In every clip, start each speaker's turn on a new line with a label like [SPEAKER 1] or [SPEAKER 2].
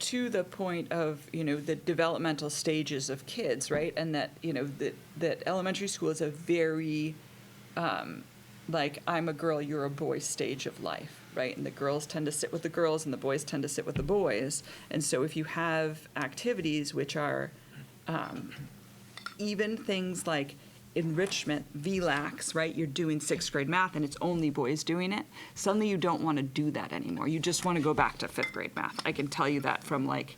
[SPEAKER 1] to the point of, you know, the developmental stages of kids, right? And that, you know, that, that elementary school is a very, um, like, I'm a girl, you're a boy stage of life, right? And the girls tend to sit with the girls and the boys tend to sit with the boys. And so if you have activities which are, um, even things like enrichment, VLAX, right? You're doing sixth grade math and it's only boys doing it. Suddenly you don't want to do that anymore. You just want to go back to fifth grade math. I can tell you that from like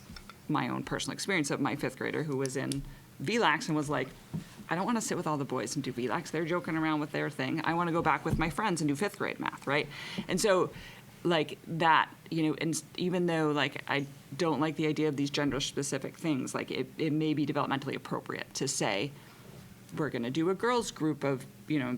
[SPEAKER 1] my own personal experience of my fifth grader who was in VLAX and was like, I don't want to sit with all the boys and do VLAX. They're joking around with their thing. I want to go back with my friends and do fifth grade math, right? And so like that you know and s- even though like i don't like the idea of these gender specific things like it, it may be developmentally appropriate to say we're going to do a girls group of you know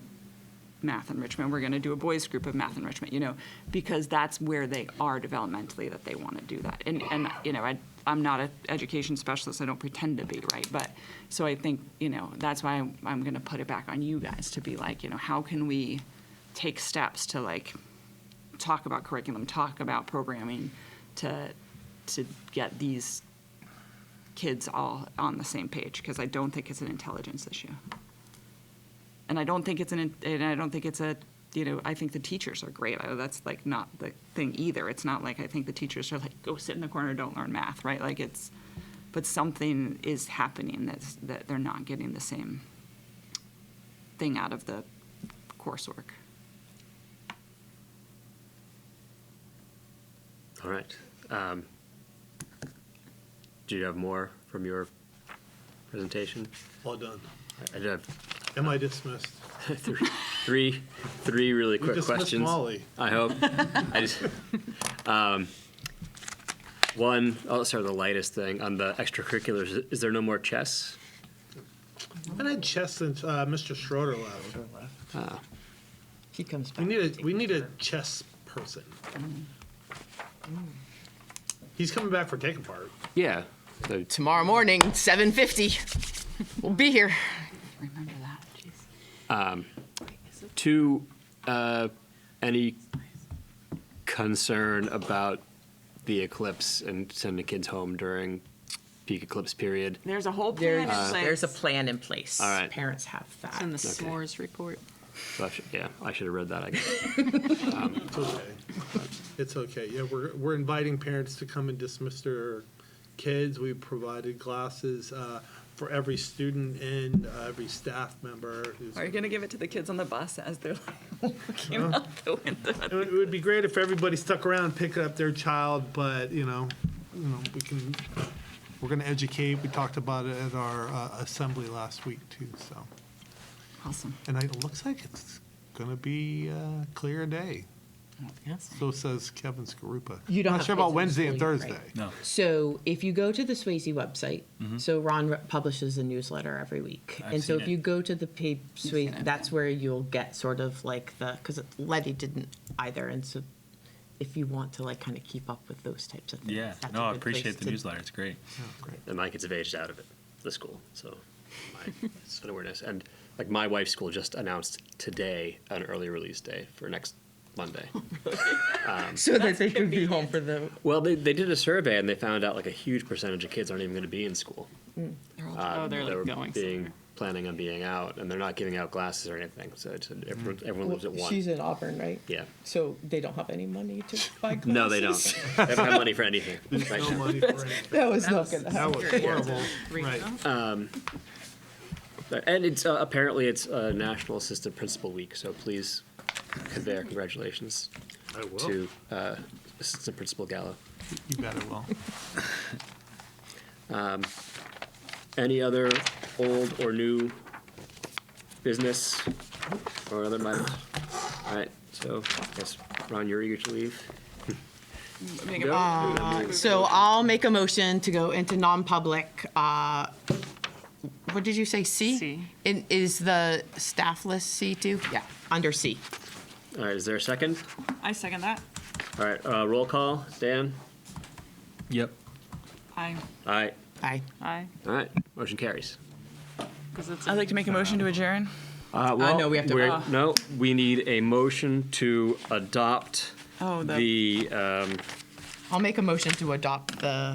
[SPEAKER 1] math enrichment we're going to do a boys group of math enrichment you know because that's where they are developmentally that they want to do that and and you know i i'm not an education specialist i don't pretend to be right but so i think you know that's why i'm, I'm going to put it back on you guys to be like you know how can we take steps to like talk about curriculum, talk about programming to to get these kids all on the same page because I don't think it's an intelligence issue. And I don't think it's an in- and I don't think it's a you know, I think the teachers are great. I, that's like not the thing either. It's not like I think the teachers are like go sit in the corner, don't learn math, right? Like it's but something is happening that's that they're not getting the same thing out of the coursework.
[SPEAKER 2] All right. Um, Do you have more from your presentation?
[SPEAKER 3] Well done.
[SPEAKER 2] I did have
[SPEAKER 3] Am I dismissed?
[SPEAKER 2] three, three, three really
[SPEAKER 3] We
[SPEAKER 2] quick
[SPEAKER 3] dismissed
[SPEAKER 2] questions.
[SPEAKER 3] Molly.
[SPEAKER 2] I hope. I just, um, one, I'll start with the lightest thing on the extracurriculars. Is there no more chess?
[SPEAKER 3] I had chess since uh, Mr. Schroeder left.
[SPEAKER 4] He comes back.
[SPEAKER 3] We need a we need a chess person. He's coming back for take apart.
[SPEAKER 2] Yeah. So,
[SPEAKER 4] Tomorrow morning, 7.50. We'll be here.
[SPEAKER 1] Remember that. Jeez.
[SPEAKER 2] two, uh, any concern about the eclipse and sending kids home during peak eclipse period?
[SPEAKER 1] There's a whole plan
[SPEAKER 4] There's,
[SPEAKER 1] in place.
[SPEAKER 4] there's a plan in place.
[SPEAKER 2] All right.
[SPEAKER 4] Parents have that.
[SPEAKER 5] in the
[SPEAKER 2] Okay.
[SPEAKER 5] s'mores report.
[SPEAKER 2] So I should, yeah, I should have read that. I guess.
[SPEAKER 3] It's okay. It's okay. Yeah, we're we're inviting parents to come and dismiss their kids. We provided glasses uh, for every student and uh, every staff member. who's-
[SPEAKER 1] Are you going to give it to the kids on the bus as they're like looking out the window?
[SPEAKER 3] It would, it would be great if everybody stuck around, and picked up their child, but you know, you know, we can. We're going to educate. We talked about it at our uh, assembly last week too. So,
[SPEAKER 1] Awesome.
[SPEAKER 3] and it looks like it's going to be a clear day.
[SPEAKER 4] Yes.
[SPEAKER 3] So says Kevin Skarupa.
[SPEAKER 4] You don't
[SPEAKER 3] Not
[SPEAKER 4] have
[SPEAKER 3] sure
[SPEAKER 4] kids
[SPEAKER 3] about
[SPEAKER 4] in
[SPEAKER 3] Wednesday and
[SPEAKER 4] school, you're right.
[SPEAKER 3] Thursday.
[SPEAKER 4] So if you go to the Swayze website, so Ron re- publishes a newsletter every week. and so if you go to the page,
[SPEAKER 1] seen it.
[SPEAKER 4] Swayze, that's where you'll get sort of like the, because Letty didn't either. And so if you want to like kind of keep up with those types of things.
[SPEAKER 6] Yeah,
[SPEAKER 4] that's a
[SPEAKER 6] no, I
[SPEAKER 4] good place
[SPEAKER 6] appreciate the
[SPEAKER 4] to-
[SPEAKER 6] newsletter. It's great.
[SPEAKER 3] Oh, great.
[SPEAKER 2] and my kids have aged out of it, the school. So my, it's an awareness. And like my wife's school just announced today an early release day for next Monday.
[SPEAKER 4] So that they can be home for the
[SPEAKER 2] well, they, they did a survey and they found out like a huge percentage of kids aren't even going to be in school. Uh,
[SPEAKER 5] oh, they're
[SPEAKER 2] they
[SPEAKER 5] like
[SPEAKER 2] were
[SPEAKER 5] going
[SPEAKER 2] being
[SPEAKER 5] somewhere.
[SPEAKER 2] planning on being out, and they're not giving out glasses or anything. So it's,
[SPEAKER 3] Mm.
[SPEAKER 2] everyone, everyone lives at one.
[SPEAKER 4] She's in Auburn, right?
[SPEAKER 2] yeah.
[SPEAKER 4] So they don't have any money to buy glasses.
[SPEAKER 2] No, they don't. they haven't had money for anything. right
[SPEAKER 3] No
[SPEAKER 2] now.
[SPEAKER 3] money for anything.
[SPEAKER 4] That was not gonna
[SPEAKER 3] That
[SPEAKER 4] happen.
[SPEAKER 3] was horrible. Right.
[SPEAKER 2] And it's uh, apparently it's uh, National Assistant Principal Week, so please convey our congratulations
[SPEAKER 3] I will.
[SPEAKER 2] to uh, Assistant Principal Gallo.
[SPEAKER 3] You better will.
[SPEAKER 2] Any other old or new business or other matters? All right, so I guess, Ron, you're eager to leave?
[SPEAKER 4] Uh,
[SPEAKER 2] No?
[SPEAKER 4] So I'll make a motion to go into non-public, uh, what did you say, C?
[SPEAKER 5] C.
[SPEAKER 4] In- Is the staff list C2? Yeah, under C.
[SPEAKER 2] All right, is there a second?
[SPEAKER 1] I second that.
[SPEAKER 2] All right, uh, roll call, Dan?
[SPEAKER 6] Yep.
[SPEAKER 1] I.
[SPEAKER 2] All right,
[SPEAKER 4] Aye.
[SPEAKER 5] Aye.
[SPEAKER 2] all right, motion carries.
[SPEAKER 5] Because it's.
[SPEAKER 1] I'd like to make a motion to adjourn.
[SPEAKER 2] Uh,
[SPEAKER 4] well, no, we have to-
[SPEAKER 2] we're-
[SPEAKER 4] ah.
[SPEAKER 2] No, we need a motion to adopt
[SPEAKER 1] Oh,
[SPEAKER 2] the, um,
[SPEAKER 4] I'll make a motion to adopt the